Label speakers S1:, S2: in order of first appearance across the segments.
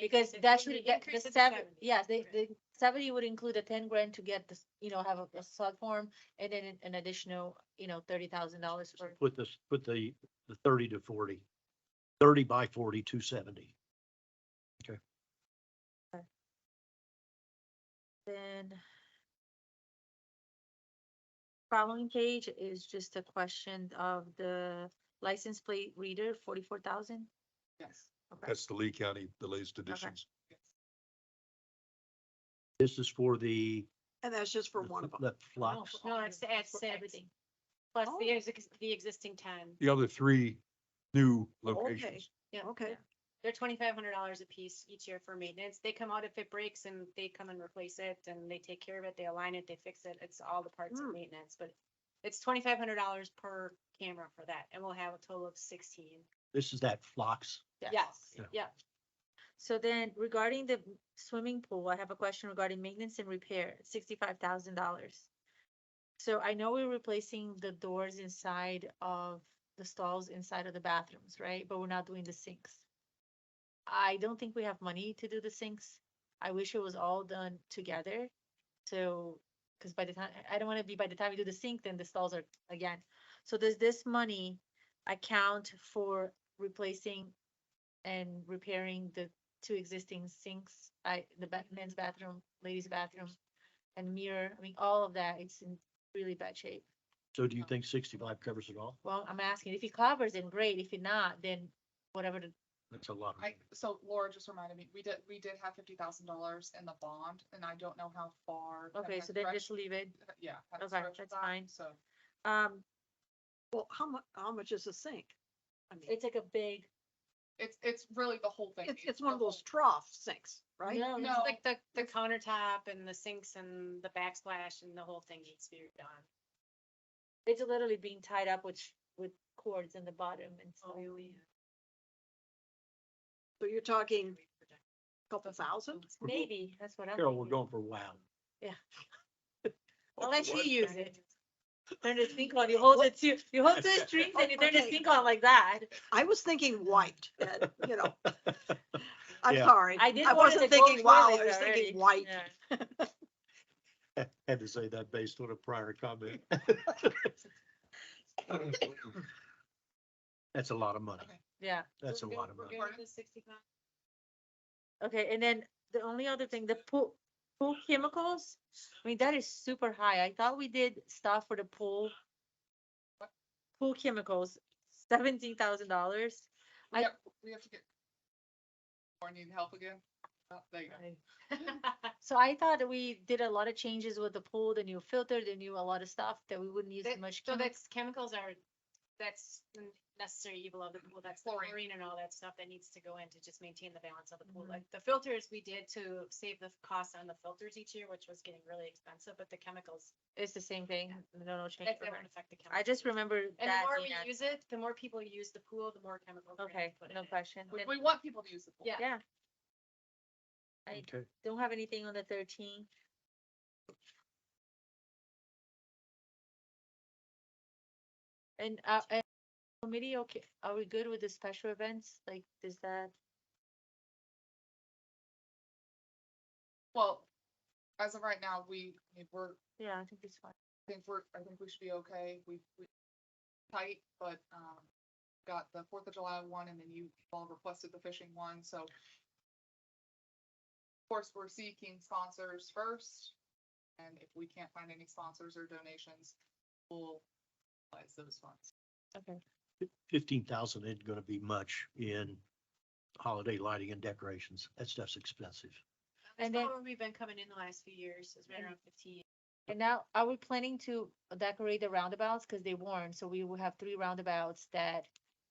S1: Because that should, that, the
S2: Increase it to
S1: seven,
S2: 70.
S1: yeah, the, the seventy would include a ten grand to get this, you know, have a, a sod farm and then an- an additional, you know, thirty thousand dollars for.
S3: Put this, put the, the thirty to forty. Thirty by forty, two seventy.
S1: Then. Following page is just a question of the license plate reader, forty-four thousand.
S2: Yes.
S1: Okay,
S4: That's the Lee County, the latest additions.
S3: This is for the.
S5: And that's just for
S3: the
S5: one of
S3: fl-
S5: them.
S3: The
S1: Oh,
S3: flux.
S2: No, it's, it's
S1: for
S2: everything.
S1: everything.
S2: Plus
S5: Oh.
S2: the, ex- the existing ten.
S4: The other three new locations.
S2: Yeah.
S5: Okay.
S2: They're twenty-five hundred dollars a piece each year for maintenance. They come out if it breaks and they come and replace it and they take care of it, they align it, they fix it. It's all the parts of
S5: Mm.
S2: maintenance, but it's twenty-five hundred dollars per camera for that and we'll have a total of sixteen.
S3: This is that flux.
S2: Yes,
S3: Yeah.
S2: yeah.
S1: So then regarding the swimming pool, I have a question regarding maintenance and repair, sixty-five thousand dollars. So I know we're replacing the doors inside of the stalls inside of the bathrooms, right? But we're not doing the sinks. I don't think we have money to do the sinks. I wish it was all done together. So, because by the time, I don't want to be, by the time we do the sink, then the stalls are again. So does this money account for replacing and repairing the two existing sinks, I, the ba-
S5: Mm-hmm.
S1: men's bathroom, ladies' bathroom, and mirror, I mean, all of that, it's in really bad shape.
S3: So do you think sixty-five covers it all?
S1: Well, I'm asking, if it covers, then great, if it not, then whatever the,
S3: That's a lot. of
S6: I,
S3: money.
S6: so Laura just reminded me, we did, we did have fifty thousand dollars in the bond, and I don't know how far. that
S1: okay,
S6: had
S1: so then
S6: stretched-
S1: just leave it.
S5: uh,
S6: Yeah. had
S1: Okay,
S6: stretched
S1: that's
S6: that,
S1: fine.
S6: So.
S1: Um,
S5: Well, how mu- how much is a sink? I mean,
S1: it's like a big,
S6: It's, it's really the whole thing.
S5: it's, it's one of
S6: the
S5: those
S6: whole-
S5: trough sinks, right?
S1: no,
S2: It's
S1: no,
S2: like the, the countertop and the sinks and the backsplash and the whole thing needs to be redone.
S1: it's literally being tied up with, sh- with cords in the bottom and
S2: Oh,
S1: stuff.
S5: Oh, So you're talking a couple thousand?
S3: We're go-
S1: Maybe, that's what I'm
S3: Carol, we're
S1: thinking.
S3: going for wow.
S1: I'll let you use it. Turn the sink on, you hold it to, you hold the strings and you turn the
S5: Okay.
S1: sink on like that.
S5: I was thinking white, and, you know, I'm
S3: Yeah.
S5: sorry.
S1: I did.
S5: I
S1: wanted
S5: wasn't
S1: to go
S5: thinking wow, I
S1: toilet
S5: was
S1: already.
S5: thinking white.
S1: Yeah.
S3: Had to say that based on a prior comment. That's a lot of money.
S6: Okay.
S1: Yeah,
S3: That's a lot of money.
S6: Pardon?
S1: okay, and then the only other thing, the pool, pool chemicals, I mean, that is super high, I thought we did stuff for the pool. Pool chemicals, seventeen thousand dollars. I-
S6: We have, we have to get. Or need help again? Oh, There you go.
S1: So I thought that we did a lot of changes with the pool, the new filter, the new, a lot of stuff that we wouldn't use
S2: That-
S1: much.
S2: So
S1: chemi-
S2: that's, chemicals are, that's the necessary evil of the pool, that's the
S6: Chlorine.
S2: chlorine and all that stuff that needs to go in to just maintain the balance of the pool.
S1: Mhm.
S2: Like the filters we did to save the cost on the filters each year, which was getting really expensive, but the chemicals,
S1: It's the same thing, no, no change.
S2: that that
S1: over.
S2: won't affect the chemicals.
S1: I just remember
S2: And the
S1: that.
S2: more
S1: being at-
S2: we use it, the more people use the pool, the more chemicals. we're gonna have
S1: Okay,
S2: to put in
S1: no
S2: it.
S1: question.
S6: We,
S1: Then-
S6: we want people to use the pool.
S2: Yeah.
S1: Yeah. I
S3: Okay.
S1: don't have anything on the thirteenth. And, uh, and committee, okay, are we good with the special events? Like, is that,
S6: Well, as of right now, we, I mean, we're,
S1: yeah, I think it's fine.
S6: I think we're, I think we should be okay. We, we tight, but, um, got the Fourth of July one and then you all requested the fishing one, so. Of course, we're seeking sponsors first, and if we can't find any sponsors or donations, we'll utilize those funds.
S1: Okay.
S3: fifteen thousand isn't gonna be much in holiday lighting and decorations. That stuff's expensive.
S2: That's
S1: And then- Mm-hmm.
S2: probably where we've been coming in the last few years, is right
S1: And-
S2: around fifteen.
S1: And now, are we planning to decorate the roundabouts? Cause they weren't, so we will have three roundabouts that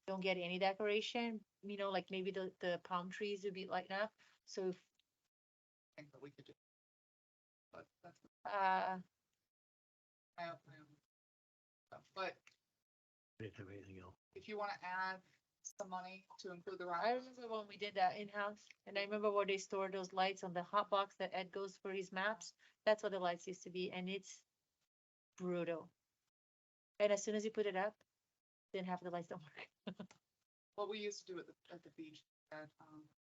S1: don't get any decoration. You know, like maybe the, the palm trees would be lighting up. So, if,
S6: I think that we could do. But that's
S1: uh,
S6: my own, my own. stuff. But
S3: I didn't have anything else.
S6: if you wanna add some money to include the
S1: I
S6: ride,
S1: remember when we did that in-house, and I remember where they stored those lights on the hot box that Ed goes for his maps. That's what the lights used to be, and it's brutal. And as soon as you put it up, then half the lights don't work.
S6: what we used to do at the, at the beach, that, um,